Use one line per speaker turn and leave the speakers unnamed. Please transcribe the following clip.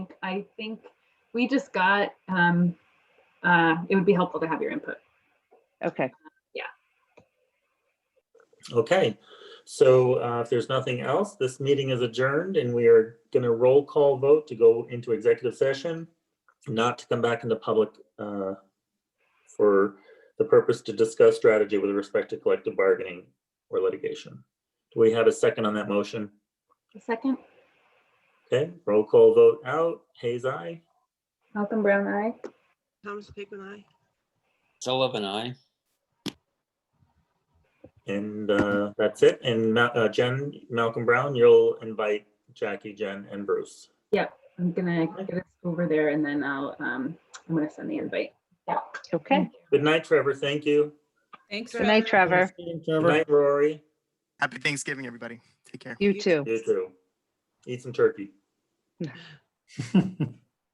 I think we just got, um, uh, it would be helpful to have your input.
Okay,
Okay, so uh, if there's nothing else, this meeting is adjourned and we are going to roll call vote to go into executive session, not to come back into public uh, for the purpose to discuss strategy with respect to collective bargaining or litigation. Do we have a second on that motion?
A second,
Okay, roll call vote out. Hayes, aye.
Malcolm Brown, aye.
Thomas Pickman, aye.
Sullivan, I.
And uh, that's it. And Ma- uh, Jen, Malcolm Brown, you'll invite Jackie, Jen, and Bruce.
I'm gonna get us over there and then I'll, um, I'm gonna send the invite.
okay.
Good night, Trevor. Thank you.
Thanks.
Good night, Trevor.
Good night, Rory.
Happy Thanksgiving, everybody. Take care.
You too.
You too. Eat some turkey.